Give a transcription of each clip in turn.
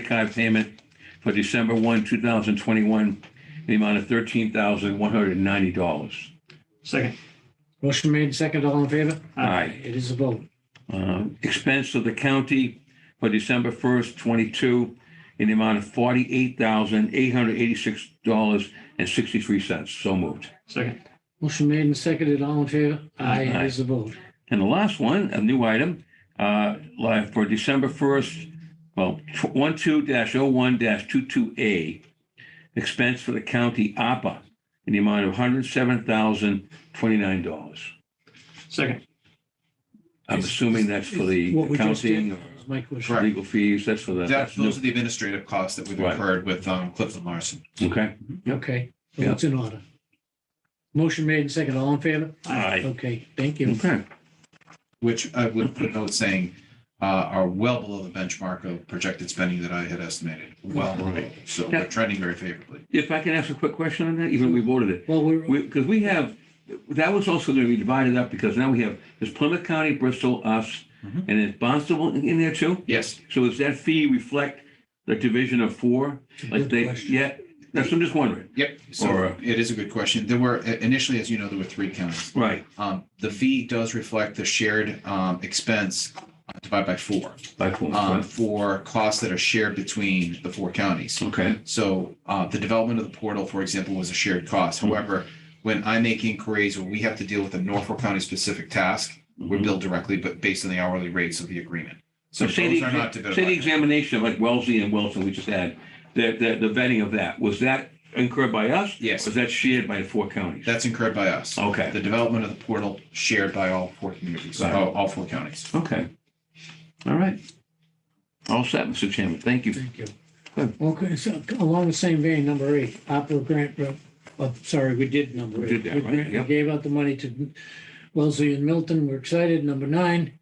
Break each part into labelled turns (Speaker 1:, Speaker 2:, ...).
Speaker 1: credit card payment for December 1, 2021, in the amount of $13,190.
Speaker 2: Second.
Speaker 3: Motion made second, all in favor?
Speaker 1: Aye.
Speaker 3: It is a vote.
Speaker 1: Uh, Expense of the county for December 1st, 22, in the amount of $48,886.63. So moved.
Speaker 2: Second.
Speaker 3: Motion made and seconded, all in favor? Aye, it is a vote.
Speaker 1: And the last one, a new item, uh, live for December 1st, well, 12-01-22A, expense for the county APA in the amount of $107,029.
Speaker 2: Second.
Speaker 1: I'm assuming that's for the
Speaker 3: What we just did
Speaker 1: accounting
Speaker 3: was my question.
Speaker 1: or
Speaker 4: Correct.
Speaker 1: legal fees, that's for the,
Speaker 4: That,
Speaker 1: that's
Speaker 4: those are
Speaker 1: new,
Speaker 4: the administrative costs that we've
Speaker 1: Right.
Speaker 4: incurred with um, Clifton Larson.
Speaker 1: okay?
Speaker 3: Okay,
Speaker 1: Yeah.
Speaker 3: well, it's in order. Motion made and seconded, all in favor?
Speaker 1: Aye.
Speaker 3: Okay, thank you.
Speaker 1: Okay,
Speaker 4: which I would put note saying uh, are well below the benchmark of projected spending that I had estimated. Well, below. so we're trending very favorably.
Speaker 1: if I can ask a quick question on that, even we voted it.
Speaker 3: Well, we're,
Speaker 1: We, because we have, that was also going to be divided up because now we have, there's Plymouth County, Bristol, us,
Speaker 4: Mhm.
Speaker 1: and there's Barnstable in in there too?
Speaker 4: Yes,
Speaker 1: So does that fee reflect the division of four? Like
Speaker 3: good
Speaker 1: they,
Speaker 3: question.
Speaker 1: yeah, that's, I'm just wondering.
Speaker 4: yep. So
Speaker 1: Or-
Speaker 4: it is a good question. There were initially, as you know, there were three counties.
Speaker 1: Right,
Speaker 4: Um, The fee does reflect the shared um, expense uh, divided by four
Speaker 1: by four,
Speaker 4: um,
Speaker 1: right.
Speaker 4: for costs that are shared between the four counties.
Speaker 1: okay,
Speaker 4: So uh, the development of the portal, for example, was a shared cost.
Speaker 1: Mm-hmm.
Speaker 4: However, when I make inquiries or we have to deal with a Norfolk County specific task, we're
Speaker 1: Mhm.
Speaker 4: billed directly, but based on the hourly rates of the agreement. So
Speaker 1: So say the,
Speaker 4: those are not
Speaker 1: exa- say the
Speaker 4: divisible.
Speaker 1: examination of like Wellesley and Wilson we just had, the, the, the vetting of that, was that incurred by us?
Speaker 4: Yes.
Speaker 1: Was that shared by the four counties?
Speaker 4: That's incurred by us.
Speaker 1: Okay,
Speaker 4: The development of the portal shared by all four communities,
Speaker 1: Right.
Speaker 4: all, all four counties.
Speaker 1: okay. All right. All set, Mr. Chairman, thank you.
Speaker 3: thank you.
Speaker 1: Good.
Speaker 3: Okay, so along the same vein, number eight, opera grant, uh, oh, sorry, we did number
Speaker 1: We
Speaker 3: eight.
Speaker 1: did that, right?
Speaker 3: grant- We
Speaker 1: Yep.
Speaker 3: gave out the money to Wellesley and Milton, we're excited. Number nine,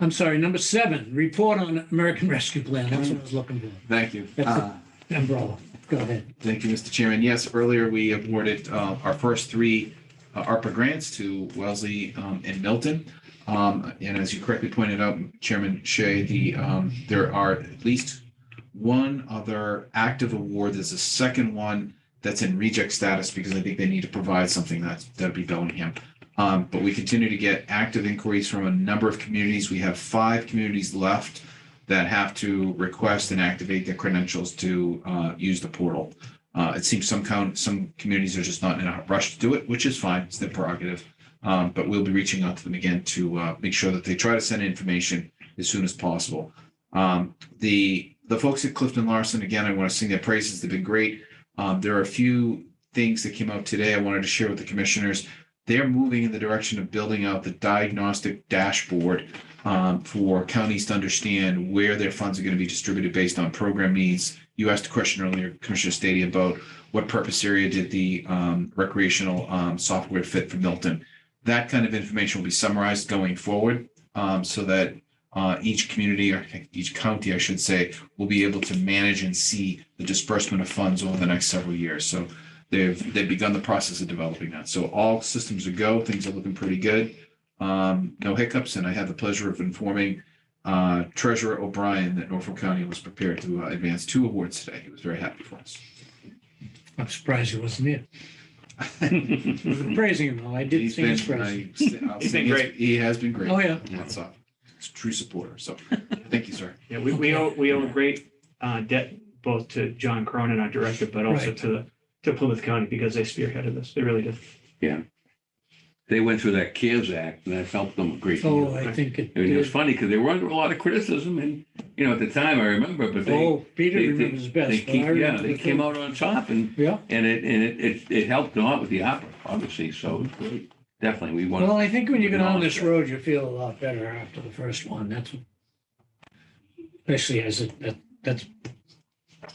Speaker 3: I'm sorry, number seven, report on American Rescue Plan, that's what I was looking for,
Speaker 4: Thank you.
Speaker 3: That's
Speaker 1: Uh,
Speaker 3: the- umbrella, go ahead.
Speaker 4: Thank you, Mr. Chairman. Yes, earlier we awarded uh, our first three uh, ARPA grants to Wellesley um, and Milton. Um, And as you correctly pointed out, Chairman Shea, the, um, there are at least one other active award. There's a second one that's in reject status because I think they need to provide something that's, that'd be Bellingham. Um, But we continue to get active inquiries from a number of communities. We have five communities left that have to request and activate their credentials to uh, use the portal. Uh, it seems some count, some communities are just not in a rush to do it, which is fine. It's their prerogative. Um, but we'll be reaching out to them again to uh, make sure that they try to send information as soon as possible. Um, the the folks at Clifton Larson, again, I want to sing their praises. They've been great. Um, there are a few things that came out today I wanted to share with the commissioners. They're moving in the direction of building out the diagnostic dashboard um, for counties to understand where their funds are going to be distributed based on program needs you asked a question earlier, Commissioner Stady, about what purpose area did the um, recreational um, software fit for Milton? That kind of information will be summarized going forward um, so that uh, each community or each county, I should say, will be able to manage and see the disbursement of funds over the next several years. So they've, they've begun the process of developing that. So all systems are go, things are looking pretty good. Um, No hiccups, and I had the pleasure of informing uh, Treasurer O'Brien that Norfolk County was prepared to uh, advance two awards today. He was very happy for us.
Speaker 3: I'm surprised it wasn't it. We
Speaker 1: Mm-hmm.
Speaker 3: were Praising him, though, I did
Speaker 4: He's
Speaker 3: sing his
Speaker 4: been-
Speaker 3: praise.
Speaker 4: I- I'll
Speaker 2: He's
Speaker 4: say
Speaker 2: been great.
Speaker 4: He has been great.
Speaker 3: Oh, yeah,
Speaker 4: That's all. He's a true supporter. So thank you, sir.
Speaker 2: Yeah, we, we owe, we owe a great uh, debt both to John Cronin, our director, but also
Speaker 3: Right.
Speaker 2: to, the to Plymouth County because they spearheaded this. They really did.
Speaker 1: They went through that CARES Act and that helped them a great deal.
Speaker 3: oh, I think it
Speaker 1: I mean, it
Speaker 3: did.
Speaker 1: was funny because they were under a lot of criticism and, you know, at the time, I remember, but they,
Speaker 3: Oh, Peter
Speaker 1: they- they-
Speaker 3: remembers
Speaker 1: they
Speaker 3: best. but I
Speaker 1: keep, yeah,
Speaker 3: remember
Speaker 1: they
Speaker 3: the
Speaker 1: came
Speaker 3: thing.
Speaker 1: out on top and,
Speaker 3: Yeah,
Speaker 1: and it, and it, it, it helped a lot with the opera, obviously, so it's great. Definitely, we want,
Speaker 3: well, I think when you get on
Speaker 1: acknowledge
Speaker 3: this
Speaker 1: that.
Speaker 3: road, you feel a lot better after the first one, that's what- especially as it, that, that's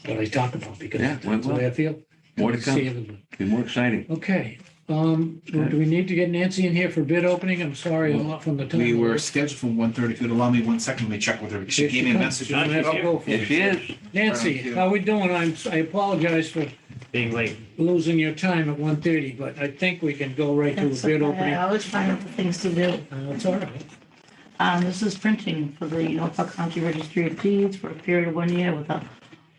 Speaker 3: what I talk about, because
Speaker 1: Yeah, went
Speaker 3: that's the way
Speaker 1: well.
Speaker 3: I feel.
Speaker 1: more to
Speaker 3: See
Speaker 1: come,
Speaker 3: everyone.
Speaker 1: be more exciting.
Speaker 3: Okay, um, well, do we need to get Nancy in here for bid opening? I'm sorry, I'm not from the time.
Speaker 4: We were scheduled for 1:30. If you'd allow me one second, let me check with her. She
Speaker 3: Here she
Speaker 4: gave me a
Speaker 3: comes.
Speaker 4: message.
Speaker 3: You don't have to go for
Speaker 1: Yes,
Speaker 3: it.
Speaker 1: she is.
Speaker 3: Nancy,
Speaker 4: Thank you.
Speaker 3: how we doing? I'm, I apologize for
Speaker 2: Being late.
Speaker 3: losing your time at 1:30, but I think we can go right to a
Speaker 5: That's
Speaker 3: bid
Speaker 5: okay.
Speaker 3: opening.
Speaker 5: I always find other things to do.
Speaker 3: Uh, It's all right.
Speaker 5: Um, This is printing for the Norfolk County Registry of Deeds for a period of one year with a